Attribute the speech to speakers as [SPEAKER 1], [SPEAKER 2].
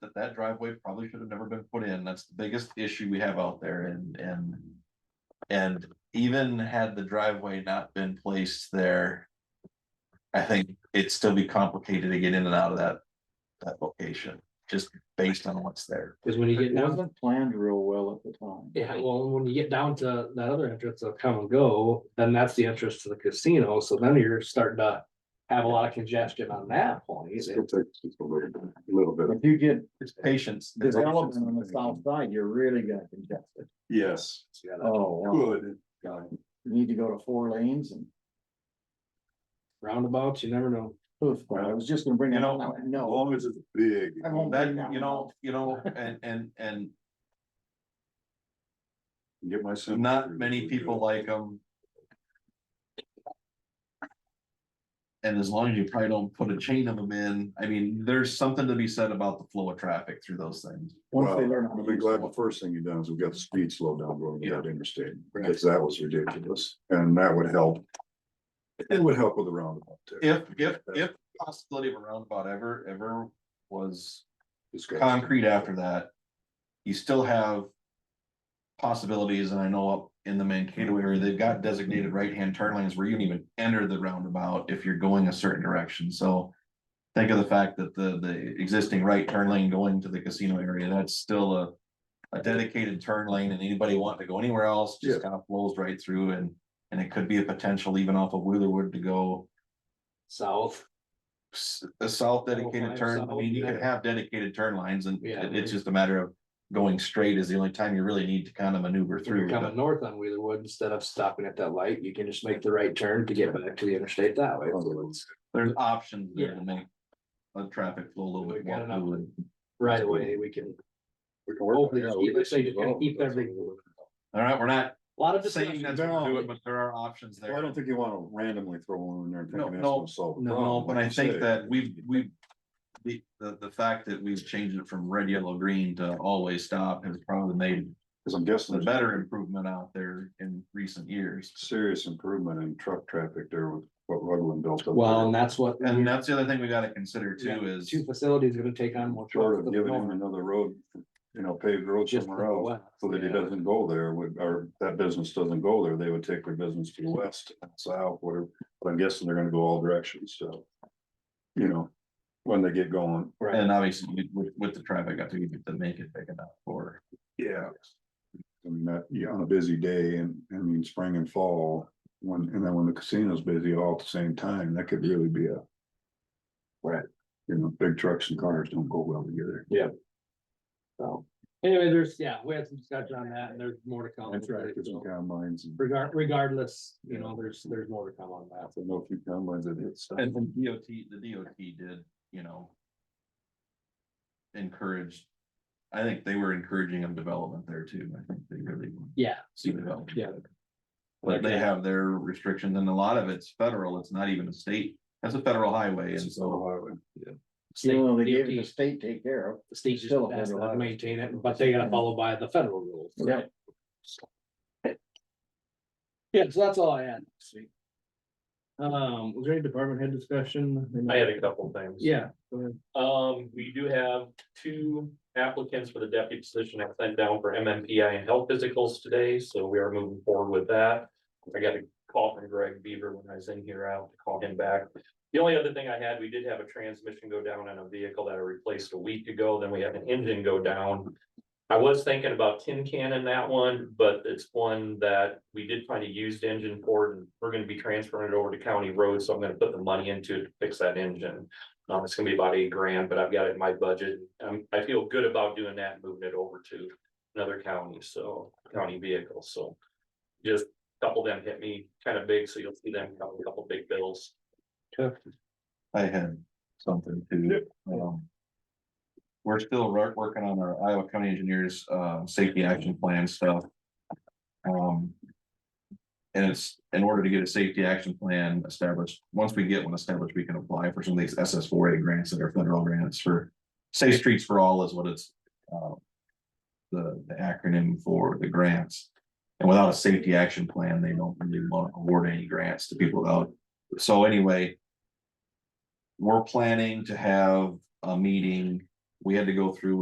[SPEAKER 1] that that driveway probably should have never been put in. That's the biggest issue we have out there and, and. And even had the driveway not been placed there. I think it'd still be complicated to get in and out of that, that location, just based on what's there.
[SPEAKER 2] Cause when you
[SPEAKER 3] It
[SPEAKER 2] get down,
[SPEAKER 3] wasn't planned real well at the time.
[SPEAKER 2] yeah, well, when you get down to that other entrance of come and go, then that's the entrance to the casino, so then you're starting to. Have a lot of congestion on that point,
[SPEAKER 4] It's gonna take just a little bit, a little bit.
[SPEAKER 3] If you get
[SPEAKER 1] It's patience. It's
[SPEAKER 3] development on the south side, you're really gonna congest it.
[SPEAKER 4] Yes.
[SPEAKER 3] Oh, wow.
[SPEAKER 4] Good.
[SPEAKER 3] you need to go to four lanes and,
[SPEAKER 2] roundabouts, you never know.
[SPEAKER 3] oof, I was just gonna bring
[SPEAKER 1] You
[SPEAKER 3] it
[SPEAKER 1] know,
[SPEAKER 3] up,
[SPEAKER 4] As
[SPEAKER 3] no.
[SPEAKER 4] long as it's big.
[SPEAKER 3] I won't bring
[SPEAKER 1] That, you
[SPEAKER 3] one
[SPEAKER 1] know,
[SPEAKER 3] up.
[SPEAKER 1] you know, and, and, and
[SPEAKER 4] Get my. son-
[SPEAKER 1] not many people like them. And as long as you probably don't put a chain of them in, I mean, there's something to be said about the flow of traffic through those things.
[SPEAKER 3] Once they
[SPEAKER 4] Well,
[SPEAKER 3] learn. how
[SPEAKER 4] I'll
[SPEAKER 3] to
[SPEAKER 4] be
[SPEAKER 3] use
[SPEAKER 4] glad
[SPEAKER 3] it.
[SPEAKER 4] the first thing you done is we got the speed slowed down going to that interstate,
[SPEAKER 1] Right.
[SPEAKER 4] because that was ridiculous, and that would help. It would help with the roundabout too.
[SPEAKER 1] If, if, if possibility of a roundabout ever, ever was
[SPEAKER 4] Discussion.
[SPEAKER 1] concrete after that, you still have possibilities, and I know up in the Mankato area, they've got designated right-hand turn lanes where you can even enter the roundabout if you're going a certain direction, so think of the fact that the, the existing right turn lane going to the casino area, that's still a a dedicated turn lane, and anybody wanting to go anywhere else just kind of flows right through, and, and it could be a potential even off of Wheelerwood to go
[SPEAKER 2] South,
[SPEAKER 1] s- a south dedicated
[SPEAKER 2] five
[SPEAKER 1] turn, I
[SPEAKER 2] south,
[SPEAKER 1] mean, you could
[SPEAKER 2] yeah.
[SPEAKER 1] have dedicated turn lines and
[SPEAKER 2] Yeah,
[SPEAKER 1] it- it's
[SPEAKER 2] there-
[SPEAKER 1] just a matter of. Going straight is the only time you really need to kind of maneuver
[SPEAKER 2] if you're
[SPEAKER 1] through.
[SPEAKER 2] coming north on Wheelerwood, instead of stopping at that light, you can just make the right turn to get back to the interstate that way.
[SPEAKER 1] There's options there to
[SPEAKER 2] Yeah.
[SPEAKER 1] make. The traffic flow a little
[SPEAKER 2] We
[SPEAKER 1] bit
[SPEAKER 2] got
[SPEAKER 1] more
[SPEAKER 2] enough.
[SPEAKER 1] fluid.
[SPEAKER 2] Right away, we can.
[SPEAKER 4] We can work on
[SPEAKER 2] Hopefully,
[SPEAKER 4] that.
[SPEAKER 2] just
[SPEAKER 4] We
[SPEAKER 2] keep,
[SPEAKER 4] can
[SPEAKER 2] like I say, just gonna keep
[SPEAKER 4] develop it.
[SPEAKER 2] everything.
[SPEAKER 1] All right, we're not
[SPEAKER 2] A lot of
[SPEAKER 1] saying
[SPEAKER 2] discussion.
[SPEAKER 1] that's what we're doing, but there are options
[SPEAKER 4] Well, I
[SPEAKER 1] there.
[SPEAKER 4] don't think you wanna randomly throw one in there and
[SPEAKER 1] No,
[SPEAKER 4] think that's
[SPEAKER 1] no,
[SPEAKER 4] gonna solve. the
[SPEAKER 2] no,
[SPEAKER 1] No,
[SPEAKER 4] problem,
[SPEAKER 1] but
[SPEAKER 4] like
[SPEAKER 1] I
[SPEAKER 4] you say.
[SPEAKER 1] think that we've, we've. The, the, the fact that we've changed it from red, yellow, green to always stop has probably made
[SPEAKER 4] Cause I'm
[SPEAKER 1] the
[SPEAKER 4] guessing there's
[SPEAKER 1] better improvement out there in recent years.
[SPEAKER 4] serious improvement in truck traffic there with what Rutland built. up
[SPEAKER 2] Well,
[SPEAKER 4] there.
[SPEAKER 2] and that's what.
[SPEAKER 1] And that's the other thing we gotta consider too
[SPEAKER 2] Yeah,
[SPEAKER 1] is.
[SPEAKER 2] Two facilities gonna take on more.
[SPEAKER 4] Short
[SPEAKER 2] trucks
[SPEAKER 4] of
[SPEAKER 2] than
[SPEAKER 4] giving him
[SPEAKER 2] normal,
[SPEAKER 4] another road, you know, paved road
[SPEAKER 2] just to the
[SPEAKER 4] somewhere else,
[SPEAKER 2] west,
[SPEAKER 4] so that he
[SPEAKER 2] yeah.
[SPEAKER 4] doesn't go there, would, or that business doesn't go there, they would take their business to the west, south, whatever. But I'm guessing they're gonna go all directions, so. You know, when they get going.
[SPEAKER 2] Right,
[SPEAKER 1] And obviously, you- with, with the traffic, I think you could make it big enough for,
[SPEAKER 4] Yeah. I mean, that, yeah, on a busy day and, I mean, spring and fall, when, and then when the casino's busy all at the same time, that could really be a. Right, you know, big trucks and cars don't go well together.
[SPEAKER 2] so. Anyway, there's, yeah, we had some discussion on that and there's more to come.
[SPEAKER 4] And tractors and combines and.
[SPEAKER 2] Regard, regardless, you know, there's, there's more to come on that.
[SPEAKER 4] I don't know if you can, but it is.
[SPEAKER 1] and and DOT, the DOT did, you know. Encouraged, I think they were encouraging of development there too, I think they really want
[SPEAKER 2] Yeah,
[SPEAKER 1] to see development.
[SPEAKER 2] Yeah.
[SPEAKER 1] But they have their restrictions, and a lot of it's federal, it's not even a state, that's a federal highway, and so,
[SPEAKER 2] state,
[SPEAKER 3] You know, they gave it to
[SPEAKER 2] DOT,
[SPEAKER 3] state take care of.
[SPEAKER 2] the state just
[SPEAKER 3] still
[SPEAKER 2] has
[SPEAKER 3] has a
[SPEAKER 2] to
[SPEAKER 3] lot.
[SPEAKER 2] maintain it, but they gotta follow by the federal rules.
[SPEAKER 3] Yeah.
[SPEAKER 2] Yeah, so that's all I had. Sweet. Um, was there any department head discussion?
[SPEAKER 5] I had a couple things.
[SPEAKER 2] Yeah, go ahead.
[SPEAKER 5] Um, we do have two applicants for the deputy position I sent down for MMPI and health physicals today, so we are moving forward with that. I got a call from Greg Beaver when I was in here, I'll have to call him back. The only other thing I had, we did have a transmission go down on a vehicle that I replaced a week ago, then we had an engine go down. I was thinking about tin can in that one, but it's one that we did find a used engine for, and we're gonna be transferring it over to county road, so I'm gonna put the money into it to fix that engine. Um, it's gonna be about eight grand, but I've got it in my budget. Um, I feel good about doing that, and moving it over to another county, so county vehicle, so. Just a couple of them hit me kind of big, so you'll see them, couple, couple big bills.
[SPEAKER 1] I had something to, um. We're still wor- working on our Iowa County Engineers, uh, safety action plan stuff. Um. And it's in order to get a safety action plan established, once we get one established, we can apply for some of these SS four A grants that are federal grants for. Safe Streets for All is what it's, uh. The, the acronym for the grants. And without a safety action plan, they don't really want to award any grants to people without. So anyway, we're planning to have a meeting. We had to go through